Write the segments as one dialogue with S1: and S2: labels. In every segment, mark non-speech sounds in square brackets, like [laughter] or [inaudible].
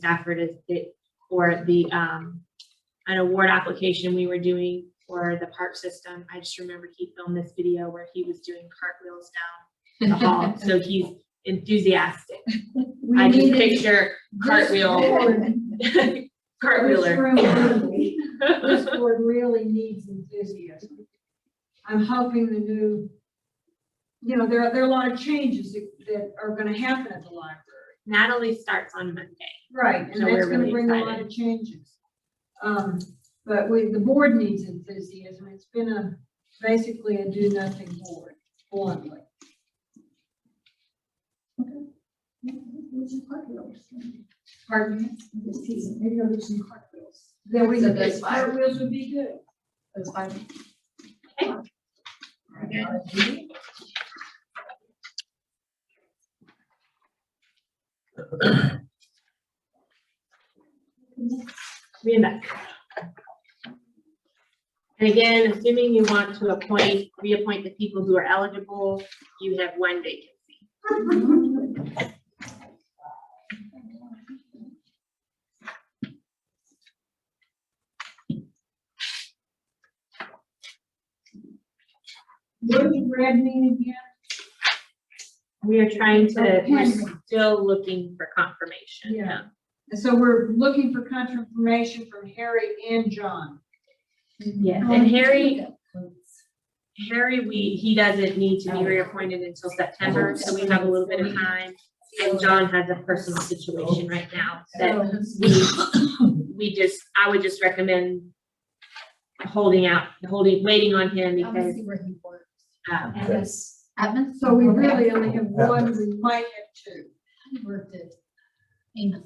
S1: Stafford is it for the um an award application we were doing for the park system. I just remember he filmed this video where he was doing cartwheels down the
S2: [laughs]
S1: hall. So he's enthusiastic.
S2: We
S1: I just
S2: needed
S1: picture [laughs]
S2: this
S1: cartwheel
S2: board- This
S1: cartwheeler.
S2: room really- this board really needs enthusiasm. I'm hoping the new, you know, there are, there are a lot of changes that- that are gonna happen at the library.
S1: [laughs] Natalie starts on Monday.
S2: Right. And
S1: So we're
S2: that's gonna
S1: really
S2: bring a lot of changes. Um, but we, the board needs enthusiasm. It's been a, basically a do-nothing board, bluntly. Pardon me?
S3: this season, maybe I'll do some cartwheels.
S2: Then we,
S3: So those five.
S2: cartwheels would be good.
S3: Those five.
S1: Okay.
S3: All right, RFP.
S1: Me and Beck. And again, assuming you want to appoint, reappoint the people who are eligible, you have one vacancy.
S2: What did the grad mean again?
S1: We are trying to, we're
S2: Okay.
S1: still looking for confirmation.
S2: Yeah. And so we're looking for confirmation from Harry and John. Mm-hmm.
S1: Yes, and Harry, Harry, we, he doesn't need
S2: Oh.
S1: to be reappointed until September, so we have a little bit of time. And John has a personal situation right now that
S2: So
S1: we, we just, I would just recommend holding out, holding, waiting on him
S2: Um,
S1: because,
S3: Obviously working for
S1: uh,
S3: Atmos. Atmos?
S2: so we really only have one, we might have [laughs] two.
S3: He worked at Amos.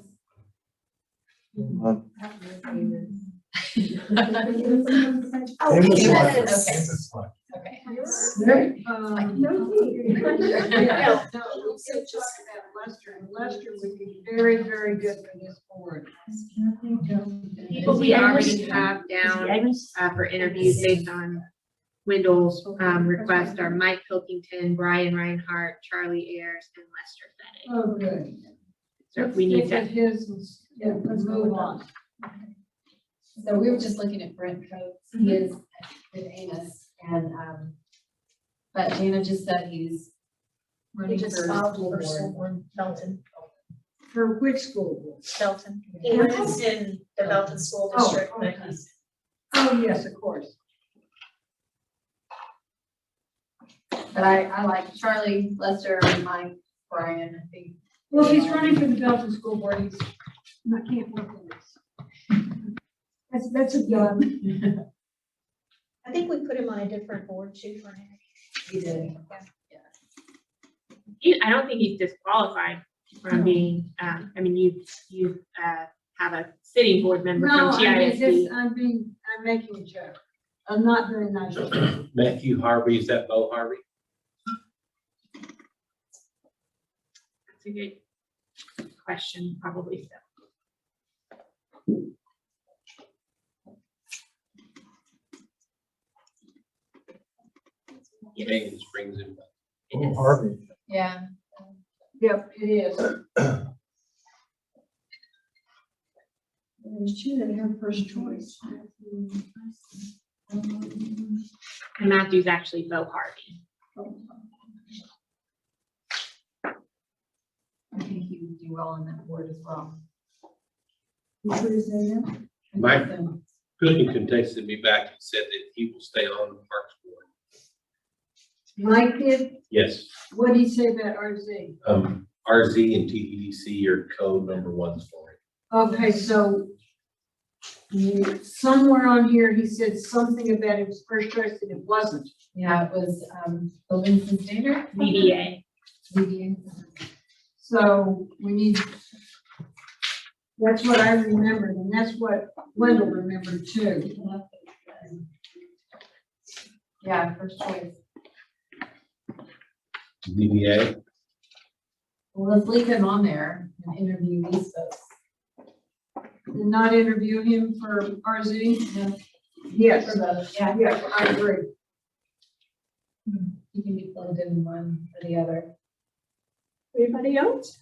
S4: Um,
S3: Oh,
S4: Amos
S3: Amos,
S4: Lockwood,
S3: okay.
S4: Amos Lockwood.
S3: Okay.
S2: Um, yeah, no, we could talk about Lester, and Lester would be very, very good for this board.
S1: people we already have down
S5: Um,
S1: uh, for interviews based on Wendell's, um, request are Mike Pilkington, Brian Reinhardt, Charlie Ayers, and Lester Fettig.
S2: Oh, good.
S1: So if we need
S2: Stick
S1: to,
S2: with his and s- Yeah, let's move on.
S3: So we were just looking at Brent Coates, he is with Amos and, um, but Jana just said he's running for school board.
S5: one, Belton,
S2: For which school?
S5: Belton.
S3: He
S2: lives
S5: in
S3: the Belton
S5: School
S2: Oh, District, but okay. he's- Oh, yes, of course.
S3: But I, I like Charlie, Lester, Mike, Brian, I think.
S2: Well, if he's running for the Belton School Board, he's, I can't work on this. That's, that's a good.
S5: I think we put him on a different board too for him.
S3: He did.
S1: he- I don't think he's disqualified from being, um, I mean, you, you, uh, have a sitting board member
S2: No,
S1: from
S2: I mean,
S1: TISD.
S2: this, I'm being, I'm making a joke. I'm not very nice.
S6: Matthew Harvey, is that Bo Harvey?
S1: That's a good question, probably so.
S6: James brings him.
S1: It is.
S4: Harvey.
S3: Yeah.
S2: Yep, it is.
S3: There's two that have first choice.
S1: And Matthew's actually Bo Harvey.
S3: I think he would do well on that board as well.
S6: Mike. Cooking contested me back and said that he will stay on the Parks Board.
S2: Mike did,
S6: Yes,
S2: what did he say about RZ?
S6: um, RZ and TEDC are code number ones for it.
S2: Okay, so mm, somewhere on here, he said something about his first choice and it wasn't.
S3: Yeah, it was, um, Buildings and Standard.
S1: DDA.
S3: ZBA.
S2: So we need, that's what I remembered, and that's what Wendell remembered too.
S3: Yeah, first choice.
S6: DBA,
S3: Well, let's leave him on there and interview these folks.
S2: Did not interview him for RZ?
S3: No.
S2: Yes,
S3: For both, yeah,
S2: yes, I agree.
S3: he can be plugged in one or the other.
S1: Anybody else?